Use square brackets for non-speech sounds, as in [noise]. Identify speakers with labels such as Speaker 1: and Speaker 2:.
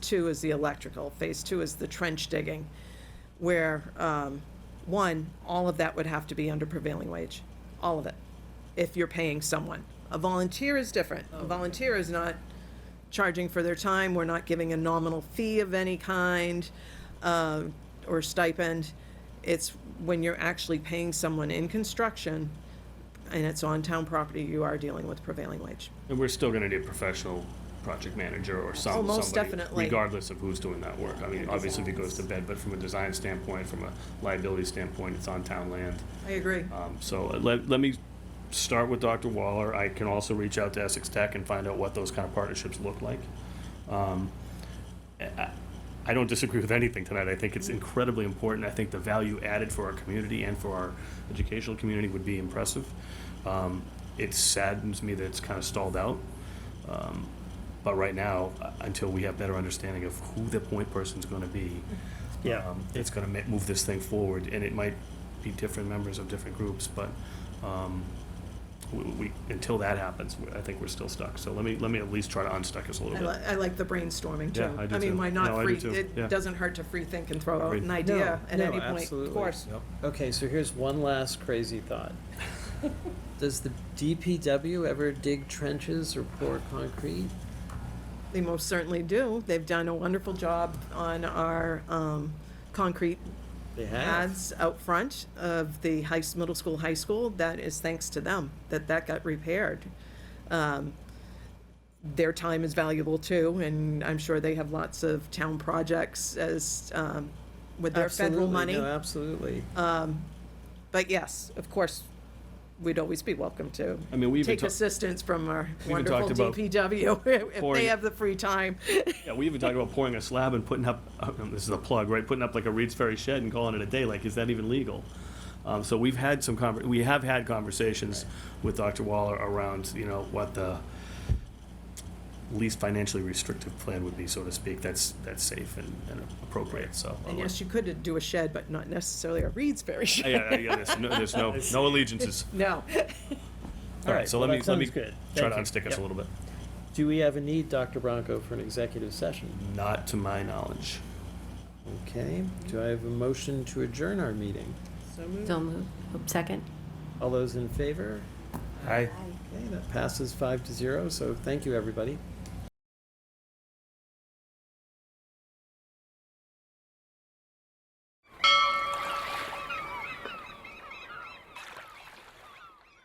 Speaker 1: two is the electrical, phase two is the trench digging, where, um, one, all of that would have to be under prevailing wage, all of it, if you're paying someone. A volunteer is different. A volunteer is not charging for their time, we're not giving a nominal fee of any kind, uh, or stipend. It's when you're actually paying someone in construction, and it's on town property, you are dealing with prevailing wage.
Speaker 2: And we're still gonna need a professional project manager or some,
Speaker 1: Oh,
Speaker 2: somebody.
Speaker 1: most definitely.
Speaker 2: Regardless of who's doing that work. I mean, obviously if it goes to bed, but from a design standpoint, from a liability standpoint, it's on town land.
Speaker 1: I agree.
Speaker 2: Um, so uh, let, let me start with Dr. Waller. I can also reach out to Essex Tech and find out what those kind of partnerships look like. Um, I, I don't disagree with anything tonight. I think it's incredibly important. I think the value added for our community and for our educational community would be impressive. Um, it saddens me that it's kind of stalled out. Um, but right now, uh, until we have better understanding of who the point person's going to be,
Speaker 3: Yeah.
Speaker 2: um, it's going to move this thing forward, and it might be different members of different groups, but um, we, we until that happens, we- I think we're still stuck. So let me let me at least try to unstuck us a little
Speaker 1: I,
Speaker 2: bit.
Speaker 1: li- I like the brainstorming too.
Speaker 2: Yeah, I do
Speaker 1: mean,
Speaker 2: too.
Speaker 1: why not
Speaker 2: No, I
Speaker 1: free?
Speaker 2: do too. Yeah.
Speaker 1: It doesn't hurt to free think and throw out
Speaker 2: Agreed.
Speaker 1: an
Speaker 3: No,
Speaker 1: idea at
Speaker 3: no,
Speaker 1: any point,
Speaker 3: absolutely.
Speaker 1: of course.
Speaker 3: Yep. Okay, so here's one last crazy thought. [laughs] Does the DPW ever dig trenches or pour concrete?
Speaker 1: They most certainly do. They've done a wonderful job on our, um, concrete
Speaker 3: They have.
Speaker 1: ads out front of the high, s- middle school, high school. That is thanks to them, that that got repaired. Um, Their time is valuable too, and I'm sure they have lots of town projects as, um, with their federal
Speaker 3: Absolutely,
Speaker 1: money.
Speaker 3: No, Oh, absolutely.
Speaker 1: But yes, of course, we'd always be welcome to
Speaker 2: I mean, we even
Speaker 1: take
Speaker 2: ta-
Speaker 1: assistance from our
Speaker 2: even
Speaker 1: wonderful
Speaker 2: talked about
Speaker 1: DPW [laughs] if
Speaker 2: pouring-
Speaker 1: they have the free time.
Speaker 2: yeah, we even talked about pouring a slab and putting up. Um, this is a plug, right? Putting up like a Reed's Ferry shed and calling it a day. Like, is that even legal? Um, so we've had some conver- we have had conversations with Dr. Waller around you know what the least financially restrictive plan would be, so to speak. That's that's safe and, and appropriate. So uh,
Speaker 1: And yes, you could do a shed, but not necessarily a Reed's Ferry
Speaker 2: Yeah,
Speaker 1: shed.
Speaker 2: [laughs] yeah, yeah, there's no, there's
Speaker 3: [laughs]
Speaker 2: no, no allegiances.
Speaker 1: No.
Speaker 2: All right, so let
Speaker 3: well,
Speaker 2: me,
Speaker 3: that
Speaker 2: let me
Speaker 3: sounds good.
Speaker 2: try to
Speaker 3: Thank you.
Speaker 2: unstick us
Speaker 3: Yep.
Speaker 2: a little bit.
Speaker 3: Do we have a need, Dr. Bronco, for an executive session?
Speaker 2: Not to my knowledge.
Speaker 3: Okay, do I have a motion to adjourn our meeting?
Speaker 4: So moved. Second?
Speaker 3: All those in favor?
Speaker 2: Aye.
Speaker 3: Okay, that passes five to zero, so thank you, everybody.